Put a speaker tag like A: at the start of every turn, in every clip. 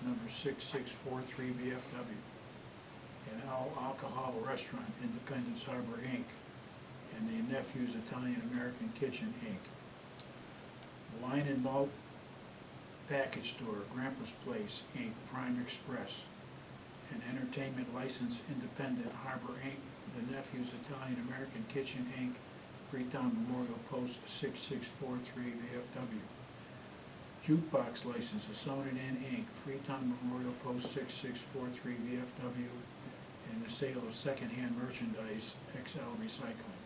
A: number six six four three BFW, and Al Alcohol Restaurant, Independence Harbor, Inc., and the Nephew's Italian American Kitchen, Inc. Wine and Malt Package Store, Grandpa's Place, Inc., Prime Express, and Entertainment License Independent Harbor, Inc., The Nephew's Italian American Kitchen, Inc., Freetown Memorial Post 6643 VFW. Jukebox License, Assonet Inn, Inc., Freetown Memorial Post 6643 VFW, and the sale of secondhand merchandise, XL Recycling.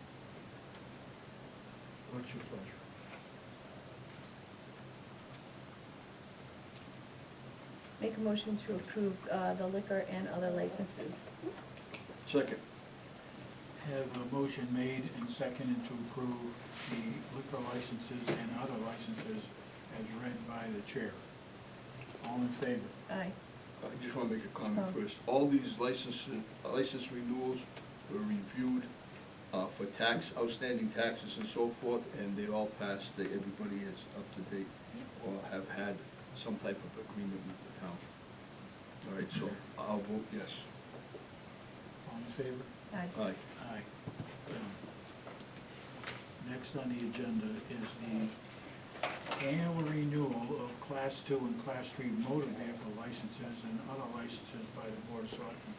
A: What's your pleasure?
B: Make a motion to approve uh, the liquor and other licenses.
C: Second.
A: Have a motion made and seconded to approve the liquor licenses and other licenses as read by the chair. All in favor?
B: Aye.
C: I just want to make a comment
B: Oh.
C: first. All these licenses, license renewals were reviewed uh, for tax, outstanding taxes and so forth, and they all passed, They- everybody is up to date or have had some type of agreement with the town. All right, so I'll vote yes.
A: All in favor?
B: Aye.
C: Aye.
A: Aye. Done. Next on the agenda is the annual renewal of Class Two and Class Three motor vehicle licenses and other licenses by the Board of Selectmen.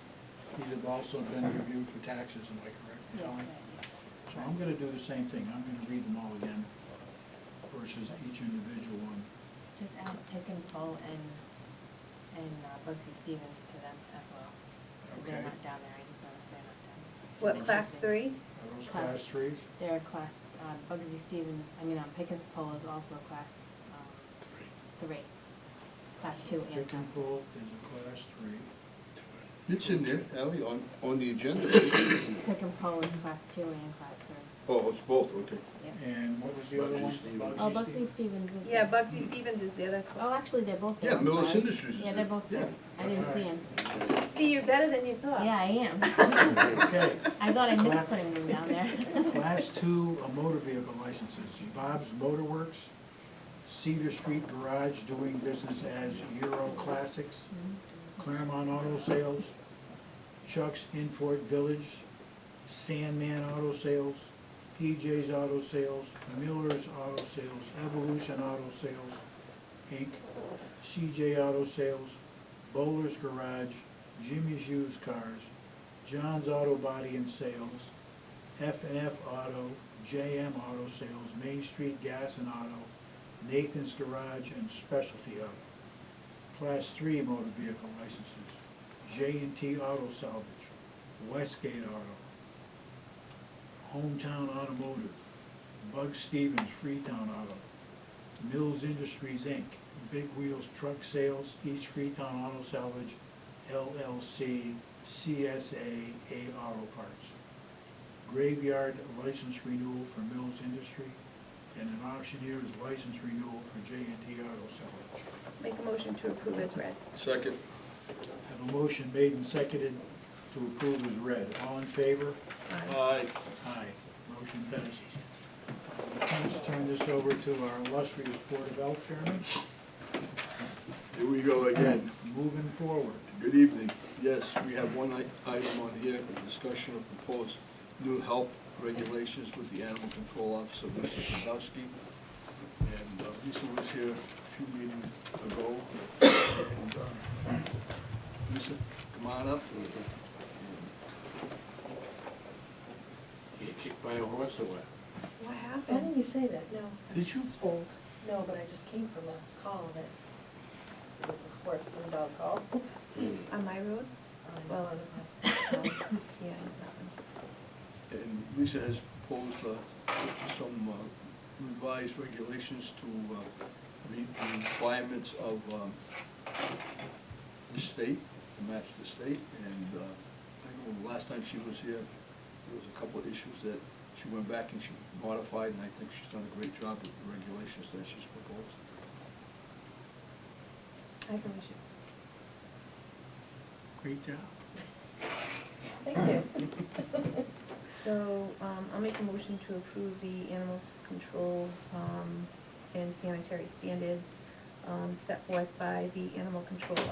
A: These have also been reviewed for taxes, am I correct? Kelly? So I'm gonna do the same thing, I'm gonna read them all again versus each individual one.
D: Just add Pick and Pull and, and uh, Bugsy Stevens to them as well. 'cause
A: Okay.
D: They're not down there, I just noticed they're not down. there.
B: What, class three?
A: Are those
D: Class-
A: Class Threes?
D: They're a class, uh, Bugsy Stevens, I mean, um, Pick and Pull is also a class, um, three. Class two and
A: Pick
D: class
A: and
D: three.
A: pull is a Class Three.
C: It's in there, Ally, on, on the agenda.
D: Pick and Pull is class two and class three.
C: Oh, it's both, okay.
D: Yeah.
A: And what was the other
C: Bugsy
A: one?
C: Stevens.
D: Oh,
A: Stevens.
D: Bugsy Stevens is.
B: Yeah,
D: there.
B: Bugsy Stevens is there, that's
D: Oh,
B: why.
D: actually, they're both there.
C: Yeah,
D: I'm
C: Millis
D: sorry.
C: Industries is
D: Yeah,
C: there.
D: they're both there.
C: Yeah.
D: I didn't see him.
A: Alright.
B: See, you're better than you thought.
D: Yeah, I am.
A: Okay.
D: I thought I missed putting them down there.
A: Class two uh, motor vehicle licenses, Bob's Motorworks, Cedar Street Garage doing business as Euro Classics, Claremont Auto Sales, Chuck's Import Village, Sandman Auto Sales, PJ's Auto Sales, Miller's Auto Sales, Evolution Auto Sales, Inc., CJ Auto Sales, Bowler's Garage, Jimmy's Used Cars, John's Auto Body and Sales, F and F Auto, JM Auto Sales, Main Street Gas and Auto, Nathan's Garage, and Specialty Auto. Class three motor vehicle licenses, J and T Auto Salvage, Westgate Auto, Hometown Automotive, Bug Stevens Freetown Auto, Mills Industries Inc., Big Wheels Truck Sales, East Freetown Auto Salvage, LLC, CSA, A Auto Parts graveyard license renewal for Mills Industry, and an auctioneer's license renewal for J and T Auto Salvage.
B: Make a motion to approve as read.
C: Second.
A: Have a motion made and seconded to approve as read. All in favor?
B: Aye.
C: Aye.
A: Aye. Motion passes. Let's turn this over to our illustrious Board of Health Chairman.
C: Here we go again.
A: Moving forward.
C: Good evening. Yes, we have one i- item on here, a discussion of proposed new health regulations with the Animal Control Officer, Lisa Podolsky. And uh, Lisa was here a few meetings ago. And, uh, Lisa, come on up.
E: Get kicked by a horse or what?
B: What
F: Why
B: happened?
F: didn't you say that? No.
A: Did you?
F: It's Old. No, but I just came from a call that it was a horse and dog call.
B: On my road?
F: Well, on the, um,
B: Yeah.
C: And Lisa has proposed uh, some uh, revised regulations to uh, meet the requirements of um, the state, to match the state. And uh, I know the last time she was here, there was a couple of issues that she went back and she modified, and I think she's done a great job with the regulations that she's proposed.
B: I can wish it.
A: Great job.
F: Thank you.
B: So, um, I'll make a motion to approve the animal control, um, and sanitary standards, um, set forth by the animal control